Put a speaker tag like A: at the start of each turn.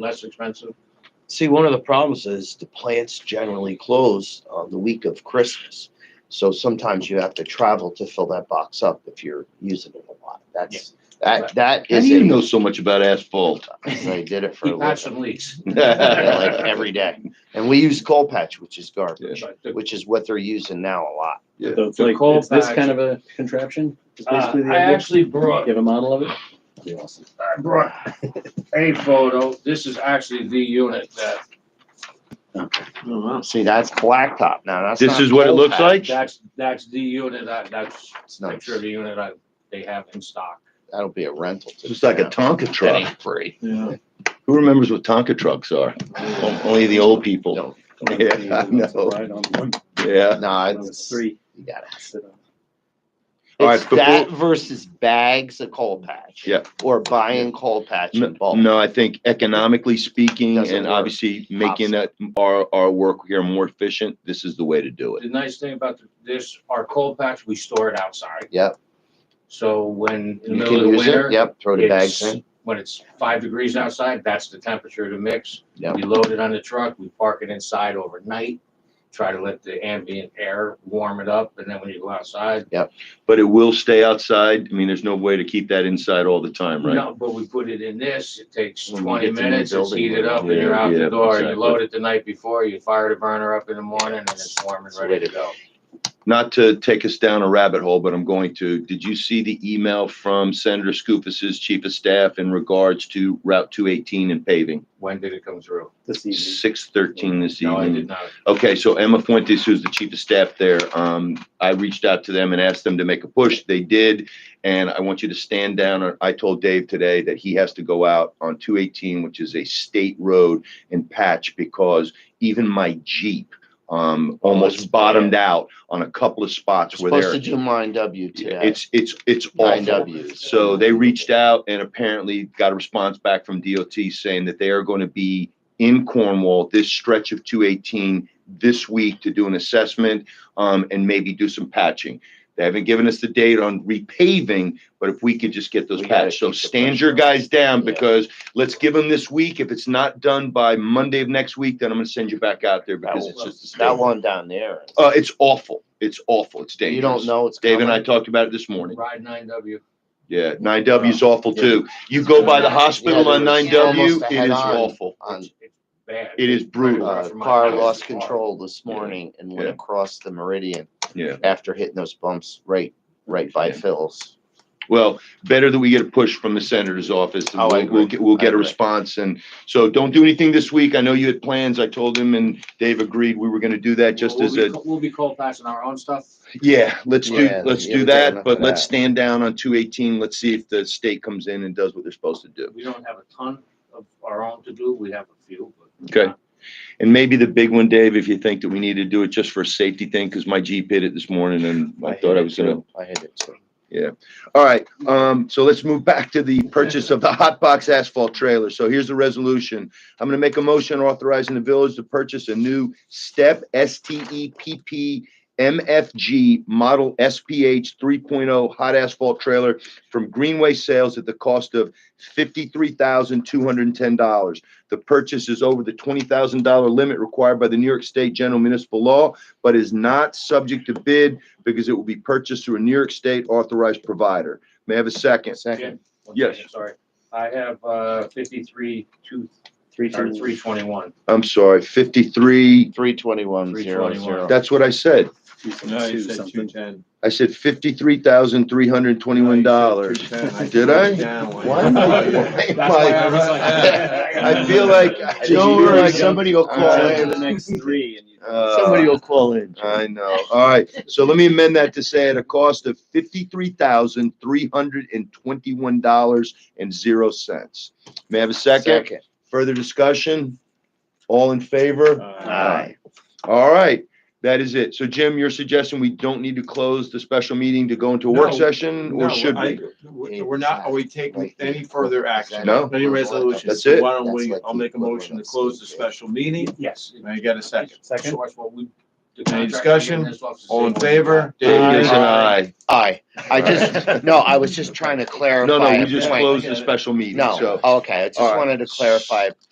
A: less expensive.
B: See, one of the problems is the plants generally close on the week of Christmas. So sometimes you have to travel to fill that box up if you're using it a lot. That's, that, that
C: How
B: is.
C: do you
B: it.
C: know so much about asphalt?
B: 'Cause I did it for a
A: Lots
B: living,
A: of leaks.
B: like every day. And we use coal patch, which is garbage,
A: But the-
B: which is what they're using now a lot.
D: So it's
A: The
D: like,
A: coal
D: it's this
A: patch-
D: kind of a contraption? Is
A: Uh,
D: basically the
A: I
D: idea?
A: actually brought,
D: You have a model of it?
A: I brought a photo. This is actually the unit that,
B: See, that's blacktop now. That's
C: This
B: not
C: is what it
B: coal
C: looks
B: patch.
C: like?
A: that's, that's the unit, that, that's
B: It's
A: a
B: not,
A: picture of the unit I, they have in stock.
B: that'll be a rental. to
C: It's like a
B: them.
C: Tonka
B: That
C: truck.
B: ain't free.
D: Yeah.
C: Who remembers what Tonka trucks are? O- Only the old people.
B: No,
C: Yeah, I know.
D: Right on one,
C: Yeah.
B: no,
D: on
B: it's.
D: three.
B: You gotta have
D: Sit on.
C: All right,
B: It's
C: before-
B: that versus bags of coal patch.
C: Yeah.
B: Or buying coal patch in bulk.
C: No, I think economically speaking
B: Doesn't
C: and
B: work.
C: obviously making that our, our work here more efficient, this is the way to do it.
A: The nice thing about the- this, our coal patch, we store it outside.
B: Yep.
A: So when, in the
B: You
A: middle
B: can
A: of the
B: use
A: winter.
B: it, yep, throw the bags
A: it's-
B: in.
A: When it's five degrees outside, that's the temperature to mix.
B: Yep.
A: We load it on the truck, we park it inside overnight, try to let the ambient air warm it up, and then when you go outside,
C: But it will stay outside. I mean, there's no way to keep that inside all the time, right?
A: No, but we put it in this, it takes
B: When we
A: twenty
B: get to the
A: minutes, it's
B: building,
A: heated up, and
C: yeah,
A: you're out
C: yeah,
A: the door, you
C: exactly.
A: load it the night before, you fire the burner up in the morning, and it's warm and
B: It's
A: ready
B: ready
A: to go.
C: Not to take us down a rabbit hole, but I'm going to. Did you see the email from Senator Scoofus's chief of staff in regards to Route 218 and paving?
A: When did it come through?
D: This evening.
C: 6:13 this
A: No, I
C: evening.
A: did not.
C: Okay, so Emma Fuentes, who's the chief of staff there, um, I reached out to them and asked them to make a push. They did. And I want you to stand down. I told Dave today that he has to go out on two eighteen, which is a state road and patch because even my Jeep, um,
B: that's
C: almost
B: bad.
C: bottomed out on a couple of spots where
B: Supposed to
C: they're,
B: do mine W today.
C: it's, it's, it's
B: Nine
C: awful.
B: Ws.
C: So they reached out and apparently got a response back from DOT saying that they are going to be in Cornwall, this stretch of two eighteen this week to do an assessment, um, and maybe do some patching. They haven't given us the date on repaving, but if we could just get those
B: We gotta
C: patched, so
B: keep the
C: stand
B: pressure
C: your
B: on.
C: guys down
B: Yeah.
C: because let's give them this week. If it's not done by Monday of next week, then I'm gonna send you back out there because it's just. a
B: That
C: state-
B: one down there,
C: Uh, it's awful. It's awful. It's dangerous.
B: you don't know it's
C: Dave
B: coming.
C: and I talked about it this morning.
A: Ride nine W.
C: Yeah, nine W is awful too. You go by the hospital on nine W, it is awful.
B: On,
A: It's bad.
C: It is brutal.
B: uh,
A: Across from my
B: car
A: house,
B: lost
A: it's
B: control this morning and went
C: Yeah.
B: across the meridian.
C: Yeah.
B: After hitting those bumps right, right by
C: Yeah.
B: Phil's.
C: Well, better that we get a push from the senator's office. and
B: Oh, I
C: We'll,
B: agree.
C: we'll get, we'll
B: I
C: get a
B: agree.
C: response and so don't do anything this week. I know you had plans. I told him and Dave agreed we were gonna do that just
A: We'll-
C: as
A: we'll
C: a,
A: be co- We'll be cold passing our own stuff.
C: yeah, let's do,
B: Yeah,
C: let's
B: yeah,
C: do
B: we got enough
C: that.
B: of
C: But let's
B: that.
C: stand down on two eighteen. Let's see if the state comes in and does what they're supposed to do.
A: We don't have a ton of our own to do, we have a few, but.
C: Okay. And maybe the big one, Dave, if you think that we need to do it just for a safety thing, because my Jeep hit it this morning and I
B: hit
C: thought I
B: it
C: was gonna
B: too. I hit it too.
C: All right, um, so let's move back to the purchase of the hot box asphalt trailer. So here's the resolution. I'm gonna make a motion authorizing the village to purchase a new step S T E P P MFG model SPH 3.0 hot asphalt trailer from Greenway Sales at the cost of $53,210. The purchase is over the $20,000 limit required by the New York State General Municipal Law, but is not subject to bid because it will be purchased through a New York State authorized provider. May I have a second?
B: Second,
A: One
C: Yes.
A: second, Sorry, I have, uh, fifty-three, two,
D: Three,
A: or
D: two,
A: three twenty-one.
C: I'm sorry, 53,
B: three twenty-one, zero,
A: 321.
B: zero.
C: that's what I said.
D: two, six,
E: No,
D: two,
E: you said two
D: something.
E: ten.
C: I said $53,321. Did I? Why am I- why am I- I feel like, I don't, know, like somebody will call
D: Jump to
C: in.
D: the next three and you.
C: Uh,
B: will call in.
C: I know. All right. So let me amend that to say at a cost of fifty-three thousand, three hundred and twenty-one dollars and zero cents. May I have a second?
B: Second.
C: Further discussion? All in favor?
E: Uh,
B: Aye.
C: All right. That is it. So Jim, you're suggesting we don't need to close the special meeting to go into a work
E: No,
C: session or should
E: I-
C: we?
E: We're we're not, are we taking any further action?
C: No.
E: Any resolutions?
C: That's it.
E: Why don't
B: That's
E: we,
B: like
E: I'll make a
B: the-
E: motion to close the special meeting.
A: Yes.
E: May I get a second?
D: Second.
A: Source what we- the
E: Any
A: contract
E: discussion?
A: we're getting this off is the
E: All in
A: same one.
E: favor? Dave,
D: Aye.
E: yes,
C: Yes,
E: and
C: and
E: aye.
C: aye.
B: Aye. I just, no, I was just trying to clarify.
C: No, no,
B: a
C: we just
B: point.
C: closed the special meeting.
B: No,
C: So,
B: okay, I just
C: All right.
B: wanted to clarify a